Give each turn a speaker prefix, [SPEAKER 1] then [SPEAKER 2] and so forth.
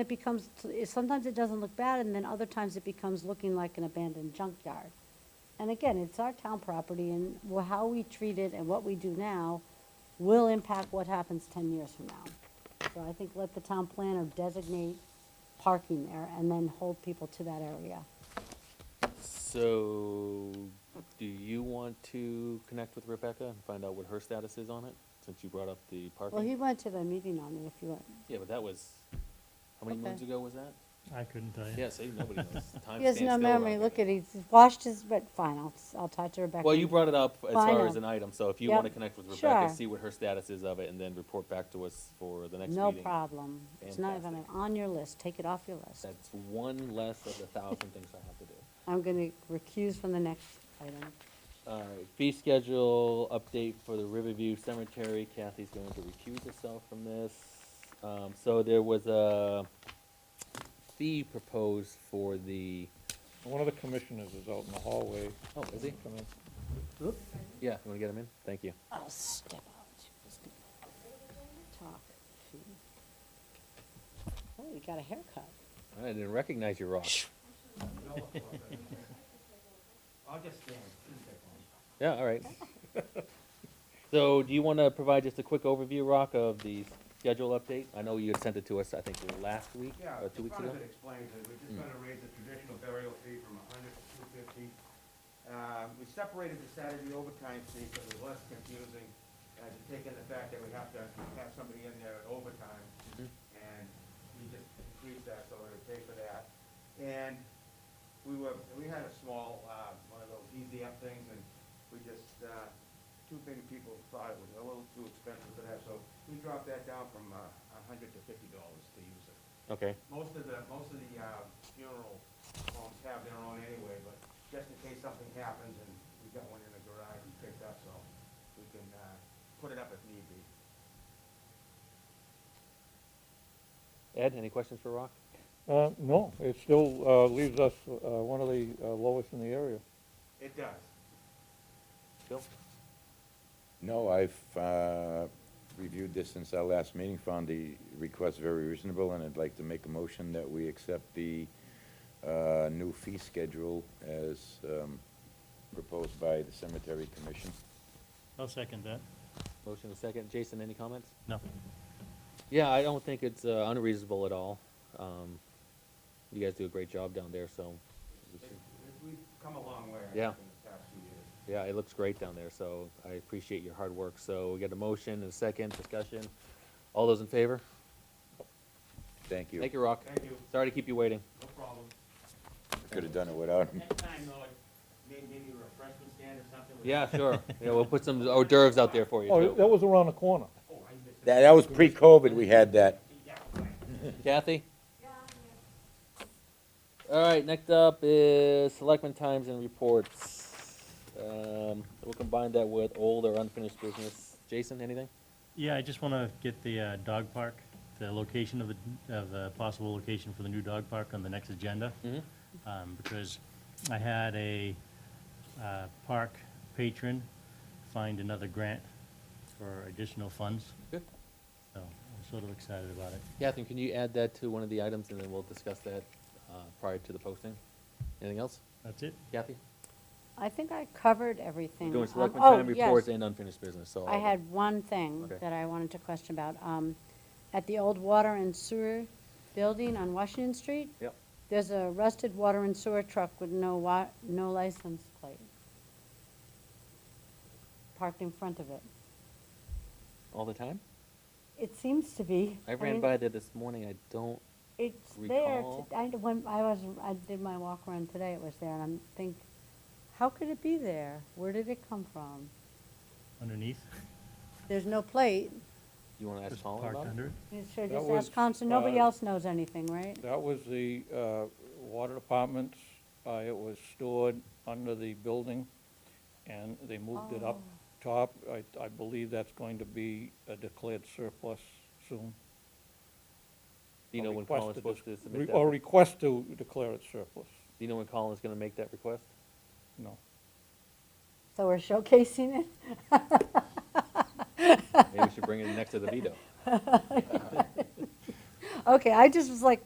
[SPEAKER 1] It becomes, sometimes it doesn't look bad, and then other times it becomes looking like an abandoned junkyard. And again, it's our town property, and wh- how we treat it and what we do now will impact what happens ten years from now. So I think let the town planner designate parking there and then hold people to that area.
[SPEAKER 2] So, do you want to connect with Rebecca and find out what her status is on it, since you brought up the
[SPEAKER 1] Well, he
[SPEAKER 2] parking?
[SPEAKER 1] went to the meeting on it, if you want.
[SPEAKER 2] Yeah, but that was, how many
[SPEAKER 1] Okay.
[SPEAKER 2] moons ago was that?
[SPEAKER 3] I couldn't tell you.
[SPEAKER 2] Yeah, see, nobody knows. Time
[SPEAKER 1] He has
[SPEAKER 2] stands
[SPEAKER 1] no
[SPEAKER 2] still
[SPEAKER 1] memory,
[SPEAKER 2] around
[SPEAKER 1] look
[SPEAKER 2] here.
[SPEAKER 1] at, he's washed his, but fine, I'll, s- I'll talk to Rebecca.
[SPEAKER 2] Well, you brought it up as
[SPEAKER 1] Well, I
[SPEAKER 2] far as
[SPEAKER 1] know.
[SPEAKER 2] an item, so if you
[SPEAKER 1] Yep.
[SPEAKER 2] wanna connect with Rebecca,
[SPEAKER 1] Sure.
[SPEAKER 2] see what her status is of it, and then report back to us for the next meeting.
[SPEAKER 1] No problem. It's not even
[SPEAKER 2] Fantastic.
[SPEAKER 1] on your list. Take it off your list.
[SPEAKER 2] That's one less of the thousand things I have to do.
[SPEAKER 1] I'm going to recuse from the next item.
[SPEAKER 2] All right, fee schedule update for the Riverview Cemetery. Kathy's going to recuse herself from this. Um, so there was a fee proposed for the,
[SPEAKER 4] One of the commissioners is out in the hallway.
[SPEAKER 2] oh, is he?
[SPEAKER 4] Come in.
[SPEAKER 2] Yeah, you wanna get him in? Thank you.
[SPEAKER 1] I'll step out. Talk. Oh, you got a haircut.
[SPEAKER 2] I didn't recognize you, Ross.
[SPEAKER 5] I'll just stand, please take one.
[SPEAKER 2] Yeah, all right. So do you wanna provide just a quick overview, Rock, of the schedule update? I know you had sent it to us, I think, last week
[SPEAKER 5] Yeah,
[SPEAKER 2] or two
[SPEAKER 5] it
[SPEAKER 2] weeks ago. Hmm.
[SPEAKER 5] probably could explain it, we're just gonna raise the traditional burial fee from a hundred to two fifty. Uh, we separated the Saturday overtime fee, so it was less confusing, uh, to take in the fact that we have to have somebody in there at overtime.
[SPEAKER 2] Mhm.
[SPEAKER 5] And we just increased that, so we're to pay for that. And we were, we had a small, uh, one of those easy up things, and we just, uh, too many people thought it was a little too expensive for that, so we dropped that down from, uh, a hundred to fifty dollars to use it
[SPEAKER 2] Okay,
[SPEAKER 5] most of the, most of the uh, funeral homes have their own anyway, but just in case something happens and we got one in the garage we picked up, so we can uh, put it up if need be.
[SPEAKER 2] Ed, any questions for Rock?
[SPEAKER 4] Uh, no, it still, uh, leaves us, uh, one of the uh, lowest in the area.
[SPEAKER 5] It does.
[SPEAKER 2] Bill?
[SPEAKER 6] No, I've uh, reviewed this since our last meeting, found the request very reasonable, and I'd like to make a motion that we accept the uh, new fee schedule as um, proposed by the Cemetery Commission.
[SPEAKER 3] I'll second that.
[SPEAKER 2] Motion and second. Jason, any comments?
[SPEAKER 3] No.
[SPEAKER 2] Yeah, I don't think it's uh, unreasonable at all. Um, you guys do a great job down there, so
[SPEAKER 5] It- it- We've come a long way, I
[SPEAKER 2] Yeah.
[SPEAKER 5] think, in the past few years.
[SPEAKER 2] yeah, it looks great down there. So I appreciate your hard work. So we got a motion and a second discussion. All those in favor?
[SPEAKER 6] Thank you.
[SPEAKER 2] Thank you, Rock.
[SPEAKER 5] Thank you,
[SPEAKER 2] Sorry to keep you waiting.
[SPEAKER 5] no problem.
[SPEAKER 6] Could have done it without him.
[SPEAKER 5] Next time, though, like, may- maybe a refreshment stand or something. with-
[SPEAKER 2] Yeah, sure. Yeah, we'll put some hors d'oeuvres out there for you.
[SPEAKER 4] Oh,
[SPEAKER 2] too.
[SPEAKER 4] that was around the corner.
[SPEAKER 5] Oh, I missed
[SPEAKER 6] That that was pre-COVID, we had that.
[SPEAKER 5] Yeah, right.
[SPEAKER 2] Kathy? All right, next up is selectmen times and reports. Um, we'll combine that with old or unfinished business. Jason, anything?
[SPEAKER 3] Yeah, I just want to get the uh, dog park, the location of the, of the possible location for the new dog park on the next agenda.
[SPEAKER 2] Mhm.
[SPEAKER 3] Um, Because I had a uh, park patron find another grant for additional funds,
[SPEAKER 2] Good.
[SPEAKER 3] so I'm sort of excited about it.
[SPEAKER 2] Catherine, can you add that to one of the items, and then we'll discuss that uh, prior to the posting? Anything else?
[SPEAKER 3] That's it?
[SPEAKER 2] Kathy?
[SPEAKER 1] I think I covered everything.
[SPEAKER 2] We're doing
[SPEAKER 1] Um,
[SPEAKER 2] selectmen
[SPEAKER 1] oh,
[SPEAKER 2] time reports
[SPEAKER 1] yes.
[SPEAKER 2] and unfinished business, so.
[SPEAKER 1] I had one thing
[SPEAKER 2] Okay.
[SPEAKER 1] that I wanted to question about. Um, At the old water and sewer building on Washington Street,
[SPEAKER 2] Yep.
[SPEAKER 1] there's a rusted water and sewer truck with no wa, no license plate parked in front of it.
[SPEAKER 2] All the time?
[SPEAKER 1] It seems to be.
[SPEAKER 2] I ran
[SPEAKER 1] mean,
[SPEAKER 2] by there this morning, I don't,
[SPEAKER 1] It's there.
[SPEAKER 2] recall.
[SPEAKER 1] to- I, d- when I was, I did my walk around today, it was there, and I'm think, how could it be there? Where did it come from?
[SPEAKER 3] Underneath?
[SPEAKER 1] There's no plate.
[SPEAKER 2] you wanna ask
[SPEAKER 3] Just
[SPEAKER 2] Colin
[SPEAKER 3] parked
[SPEAKER 2] about it?
[SPEAKER 3] under it?
[SPEAKER 1] You should
[SPEAKER 4] That
[SPEAKER 1] just
[SPEAKER 4] was,
[SPEAKER 1] ask Constance. Nobody
[SPEAKER 4] uh,
[SPEAKER 1] else knows anything, right?
[SPEAKER 4] That was the, uh, water department's, uh, it was stored under the building, and they moved it up
[SPEAKER 2] Oh.
[SPEAKER 4] top. I, I believe that's going to be a declared surplus soon.
[SPEAKER 2] Do you
[SPEAKER 4] A
[SPEAKER 2] know when
[SPEAKER 4] request
[SPEAKER 2] Colin's
[SPEAKER 4] to
[SPEAKER 2] supposed to
[SPEAKER 4] dis-
[SPEAKER 2] submit
[SPEAKER 4] re-
[SPEAKER 2] that?
[SPEAKER 4] Or
[SPEAKER 2] Do
[SPEAKER 4] request to declare it surplus,
[SPEAKER 2] you know when Colin's gonna make that request?
[SPEAKER 4] no.
[SPEAKER 1] So we're showcasing it?
[SPEAKER 2] Maybe we should bring it next to the veto.
[SPEAKER 1] Okay, I just was like,